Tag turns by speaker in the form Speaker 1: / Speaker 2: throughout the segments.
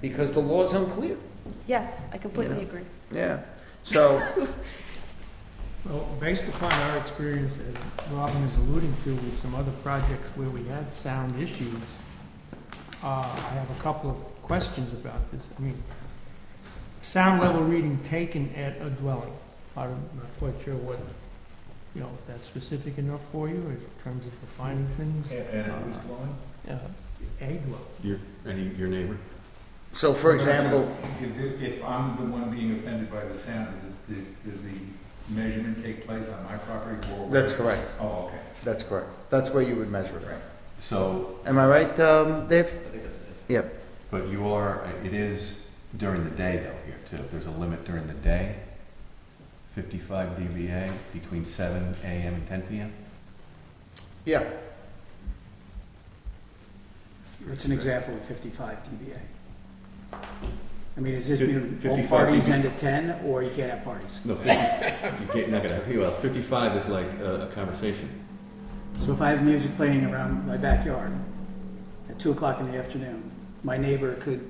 Speaker 1: because the law's unclear.
Speaker 2: Yes, I completely
Speaker 1: Yeah.
Speaker 2: agree.
Speaker 1: Yeah. So,
Speaker 3: Well, based upon our experience, as Robin is alluding to, with some other projects where we had sound issues, uh, I have a couple of questions about this. I mean, sound level reading taken at a dwelling, I'm not quite sure what, you know, if that's specific enough for you in terms of defining things.
Speaker 4: And
Speaker 3: at whose
Speaker 4: dwelling?
Speaker 3: Uh, A dwelling.
Speaker 5: Your, any, your neighbor?
Speaker 1: so for example,
Speaker 4: If, if I'm the one being offended by the sound, is it, does the measurement take place on my property or?
Speaker 1: that's correct.
Speaker 4: Oh, okay.
Speaker 1: That's correct. That's where you would measure it.
Speaker 5: So,
Speaker 1: Am I right, um, Dave? Yep.
Speaker 5: but you are, it is during the day though here too. If there's a limit during the day, 55 dBA between 7 AM and 10 PM?
Speaker 1: Yeah.
Speaker 6: It's an example of 55 dBA. I mean, does this mean all
Speaker 5: 55
Speaker 6: parties
Speaker 5: dBA.
Speaker 6: end at 10, or you can't have parties?
Speaker 5: No, 50, you're not gonna, well, 55 is like a conversation.
Speaker 6: So if I have music playing around my backyard at 2 o'clock in the afternoon, my neighbor could,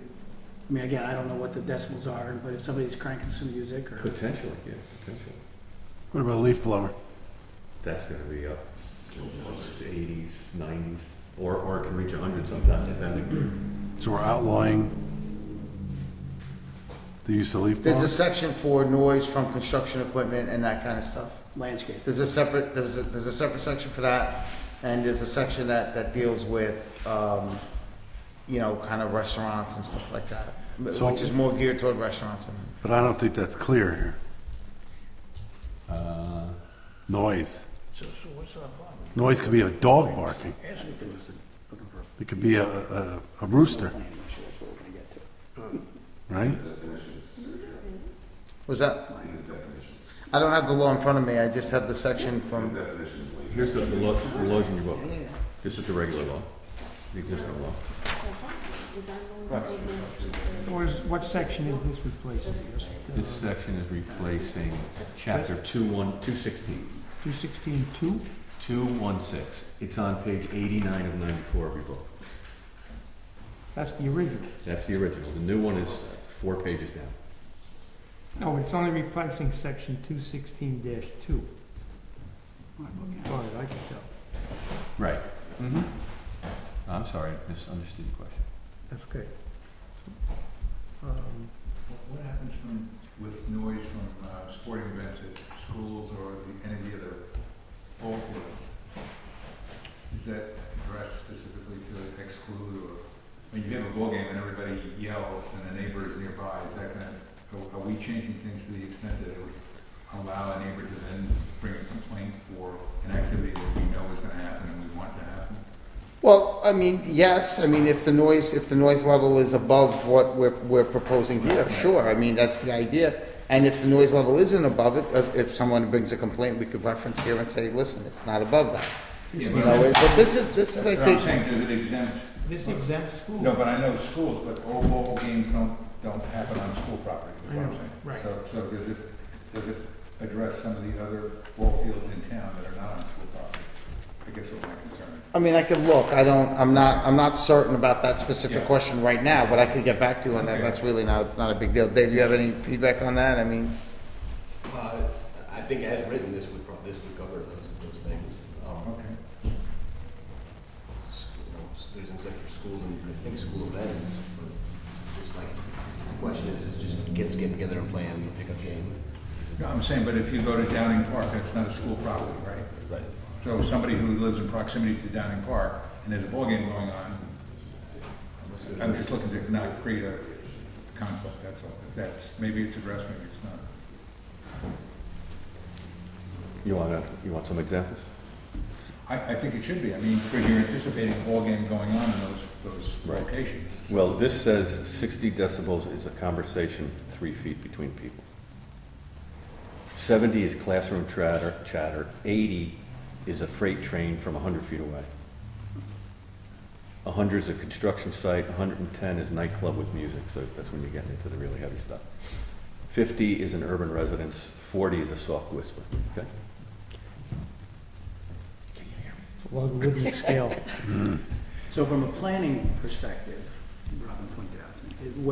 Speaker 6: I mean, again, I don't know what the decibels are, but if somebody's cranking some music or,
Speaker 5: Potentially, yeah, potentially.
Speaker 7: What about a leaf blower?
Speaker 5: That's gonna be up to 80s, 90s, or, or it can reach 100 sometimes, depending.
Speaker 7: So we're outlawing the use of leaf
Speaker 1: There's a
Speaker 7: blowers?
Speaker 1: section for noise from construction equipment and that kind of stuff.
Speaker 6: landscape.
Speaker 1: There's a separate, there's a, there's a separate section for that, and there's a section that, that deals with, um, you know, kind of restaurants and stuff like that,
Speaker 7: So-
Speaker 1: which is more geared toward restaurants and.
Speaker 7: But I don't think that's clear here.
Speaker 5: Uh,
Speaker 7: Noise. Noise could be a dog barking. It could be a, a, a rooster,
Speaker 6: Planning issue, that's what we're going to get to.
Speaker 7: right?
Speaker 1: Was that? I don't have the law in front of me, I just have the section from,
Speaker 5: Here's the the law, the laws in your book. This is the regular law, the existing law.
Speaker 3: Where's, what section is this replacing? Just,
Speaker 5: This
Speaker 3: uh,
Speaker 5: section is replacing chapter two one, two sixteen,
Speaker 3: 216-2?
Speaker 5: two one six. It's on page eighty-nine of ninety-four of your book.
Speaker 3: That's the original.
Speaker 5: That's the original. The new one is four pages down.
Speaker 3: No, it's only replacing section 216-2.
Speaker 6: My book, yeah.
Speaker 3: Sorry, Oh, I can tell.
Speaker 5: Right. I'm sorry, I misunderstood the question.
Speaker 3: That's okay. Um,
Speaker 4: What happens from, with noise from uh, sporting events at schools or the- any of the other ball fields? Is that addressed specifically to exclude or, when you have a ball game and everybody yells and the neighbor is nearby, is that gonna, are- are we changing things to the extent that it would allow a neighbor to then bring a complaint for an activity that we know is gonna happen and we want to happen?
Speaker 1: well, I mean, yes, I mean, if the noise, if the noise level is above what we're, we're proposing here, sure, I mean, that's the idea. And if the noise level isn't above it, if- if someone brings a complaint, we could reference here and say, listen, it's not above that.
Speaker 4: Yeah,
Speaker 1: You know,
Speaker 4: but-
Speaker 1: but this is, this is, I
Speaker 4: But I'm
Speaker 1: think,
Speaker 4: saying, does it exempt
Speaker 3: This exempts schools.
Speaker 4: No, but I know schools, but all ball games don't, don't happen on school property, is what I'm saying.
Speaker 3: Right.
Speaker 4: So, so does it, does it address some of the other ball fields in town that are not on school property? I guess what my concern
Speaker 1: I mean, I could look, I don't, I'm not, I'm not certain about that specific
Speaker 4: Yeah.
Speaker 1: question right now, but I could get back to you on that,
Speaker 4: Okay.
Speaker 1: that's really not, not a big deal. Dave, you have any feedback on that? I mean,
Speaker 8: Uh, I think as written, this would, prob- this would cover those, those things.
Speaker 4: is.
Speaker 8: Um,
Speaker 4: Okay.
Speaker 8: s- you know, s- There's an exemption for school and I think school events, but just like, the question is, is just kids getting together and playing a pickup game.
Speaker 4: No, I'm saying, but if you go to Downing Park, that's not a school property, right?
Speaker 8: Right.
Speaker 4: So somebody who lives in proximity to Downing Park and there's a ball game going on, I'm just looking to not create a conflict, that's all. If that's, maybe it's addressed, maybe it's not.
Speaker 5: You wanna, you want some examples?
Speaker 4: I, I think it should be, I mean, because you're anticipating a ball game going on in those, those
Speaker 5: Right.
Speaker 4: locations.
Speaker 5: Well, this says sixty decibels is a conversation three feet between people. Seventy is classroom chatter, chatter. Eighty is a freight train from hundred feet away. hundred is a construction site, hundred and ten is nightclub with music, so that's when you're getting into the really heavy stuff. Fifty is an urban residence, forty is a soft whisper, okay?
Speaker 3: Logarithmic scale.
Speaker 6: So from a planning perspective, Robin pointed out, to me, it-